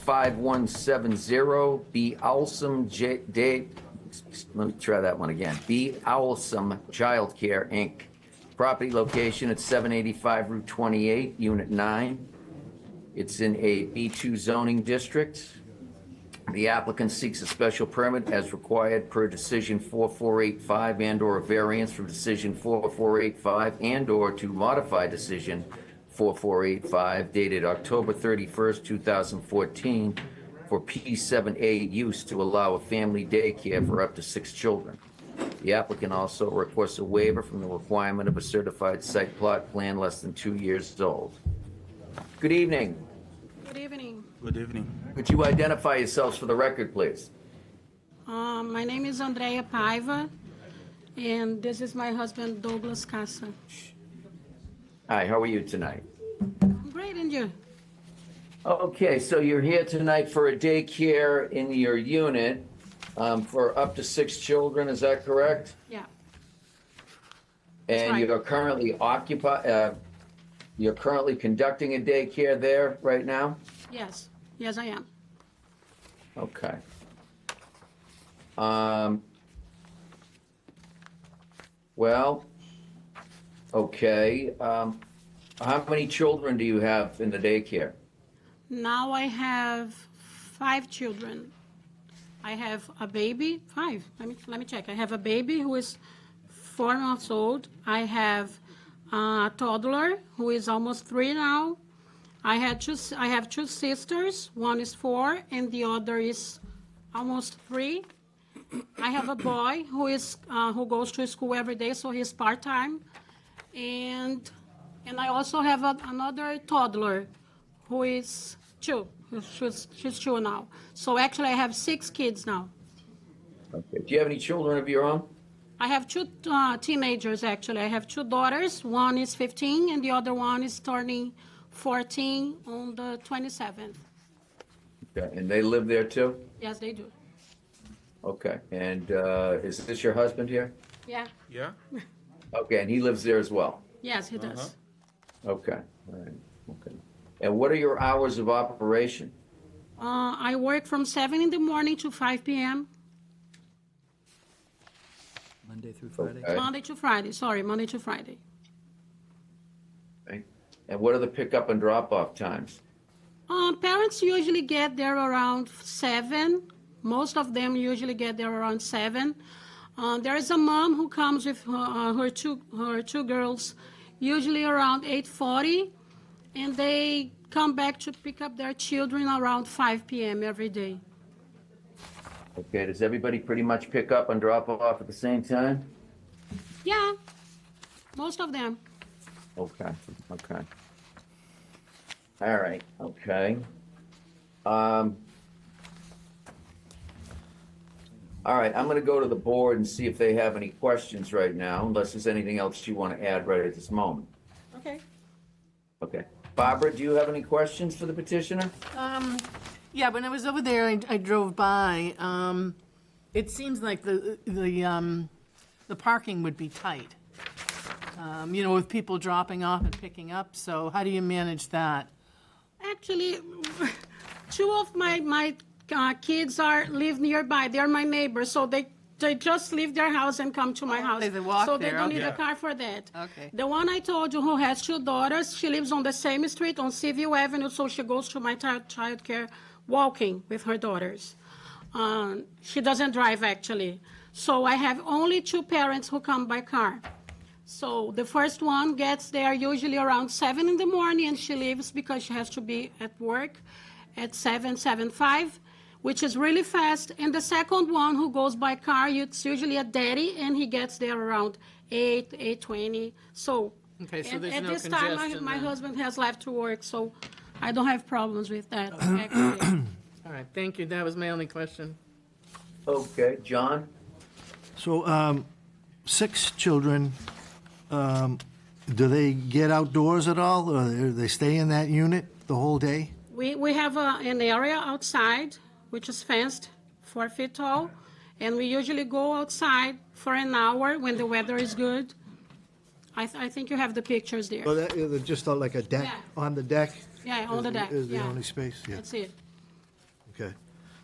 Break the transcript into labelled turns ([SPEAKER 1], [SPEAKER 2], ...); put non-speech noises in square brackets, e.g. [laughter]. [SPEAKER 1] 5170, B. Owlsome J, Day, let me try that one again. B. Owlsome Childcare, Inc. Property location at 785 Route 28, Unit 9. It's in a B2 zoning district. The applicant seeks a special permit as required per decision 4485 and/or a variance from decision 4485 and/or to modify decision 4485 dated October 31st, 2014 for P7A use to allow a family daycare for up to six children. The applicant also requests a waiver from the requirement of a certified site plot plan less than two years old. Good evening.
[SPEAKER 2] Good evening.
[SPEAKER 3] Good evening.
[SPEAKER 1] Could you identify yourselves for the record, please?
[SPEAKER 2] Um, My name is Andrea Paiva, and this is my husband Douglas Casa.
[SPEAKER 1] Hi, how are you tonight?
[SPEAKER 2] Great, and you?
[SPEAKER 1] Okay, so you're here tonight for a daycare in your unit um, for up to six children, is that correct?
[SPEAKER 2] Yeah,
[SPEAKER 1] And
[SPEAKER 2] right.
[SPEAKER 1] you're currently occupy, uh, you're currently conducting a daycare there right now?
[SPEAKER 2] yes, yes, I am.
[SPEAKER 1] Okay. Um, well, okay, um, how many children do you have in the daycare?
[SPEAKER 2] Now I have five children. I have a baby, five, let me, let me check. I have a baby who is four months old. I have a toddler who is almost three now. I had two, s- I have two sisters, one is four and the other is almost three. I have a boy who is, uh, who goes to school every day, so he's part-time. And, and I also have a- another toddler who is two. She's, she's two now. So actually, I have six kids now.
[SPEAKER 1] Okay. Do you have any children of your own?
[SPEAKER 2] I have two uh, teenagers actually. I have two daughters. One is 15, and the other one is turning 14 on the 27th.
[SPEAKER 1] Okay, And they live there too?
[SPEAKER 2] Yes, they do.
[SPEAKER 1] Okay, and uh, is this your husband here?
[SPEAKER 2] Yeah.
[SPEAKER 3] Yeah?
[SPEAKER 1] Okay, and he lives there as well?
[SPEAKER 2] Yes, he does.
[SPEAKER 1] Okay, all right, okay. And what are your hours of operation?
[SPEAKER 2] Uh, I work from 7 in the morning to 5 p.m.
[SPEAKER 4] Monday through Friday?
[SPEAKER 1] Okay.
[SPEAKER 2] Monday to Friday. Sorry, Monday to Friday.
[SPEAKER 1] okay? And what are the pickup and drop-off times?
[SPEAKER 2] Uh, parents usually get there around seven. Most of them usually get there around seven. Uh, there is a mom who comes with her, uh, her two her two girls, usually around 8:40, and they come back to pick up their children around 5 p.m. every day.
[SPEAKER 1] Okay, does everybody pretty much pick up and drop off at the same time?
[SPEAKER 2] Yeah, most of them.
[SPEAKER 1] Okay, okay. All right, okay. Um, all right, I'm gonna go to the board and see if they have any questions right now, unless there's anything else you wanna add right at this moment.
[SPEAKER 5] Okay.
[SPEAKER 1] Okay. Barbara, do you have any questions for the petitioner?
[SPEAKER 5] Um, yeah, when I was over there, I, I drove by. Um, it seems like the, the, um, the parking would be tight. Um, you know, with people dropping off and picking up, so how do you manage that?
[SPEAKER 2] Actually, [laughs] two of my my uh, kids are live nearby. They're my neighbors, so they they just leave their house and come to my house.
[SPEAKER 5] Oh, they- they walk
[SPEAKER 2] so they
[SPEAKER 5] there,
[SPEAKER 2] don't need
[SPEAKER 5] okay.
[SPEAKER 2] a car for that.
[SPEAKER 5] Okay.
[SPEAKER 2] The one I told you who has two daughters, she lives on the same street on Seaview Avenue, so she goes to my child childcare walking with her daughters. Um, she doesn't drive actually, so I have only two parents who come by car. So the first one gets there usually around seven in the morning, and she leaves because she has to be at work at seven, seven five, which is really fast. And the second one who goes by car, it's usually a daddy, and he gets there around eight, eight twenty. So
[SPEAKER 5] Okay, so
[SPEAKER 2] and
[SPEAKER 5] there's
[SPEAKER 2] at
[SPEAKER 5] no
[SPEAKER 2] this time, my,
[SPEAKER 5] congestion
[SPEAKER 2] my
[SPEAKER 5] then.
[SPEAKER 2] husband has left to work, so I don't have problems with
[SPEAKER 5] [clears throat]
[SPEAKER 2] that. Actually.
[SPEAKER 5] All right, thank you, that was my only question.
[SPEAKER 1] Okay, John?
[SPEAKER 6] So, um, six children, um, do they get outdoors at all, or they- they stay in that unit the whole day?
[SPEAKER 2] We, we have a, an area outside, which is fenced, four feet tall, and we usually go outside for an hour when the weather is good. I, th- I think you have the pictures there.
[SPEAKER 6] Or that- is it just on like a deck,
[SPEAKER 2] Yeah.
[SPEAKER 6] on the deck?
[SPEAKER 2] Yeah, on the
[SPEAKER 6] Is-
[SPEAKER 2] deck,
[SPEAKER 6] Is the
[SPEAKER 2] yeah.
[SPEAKER 6] only space, yeah.
[SPEAKER 2] That's it.
[SPEAKER 6] Okay.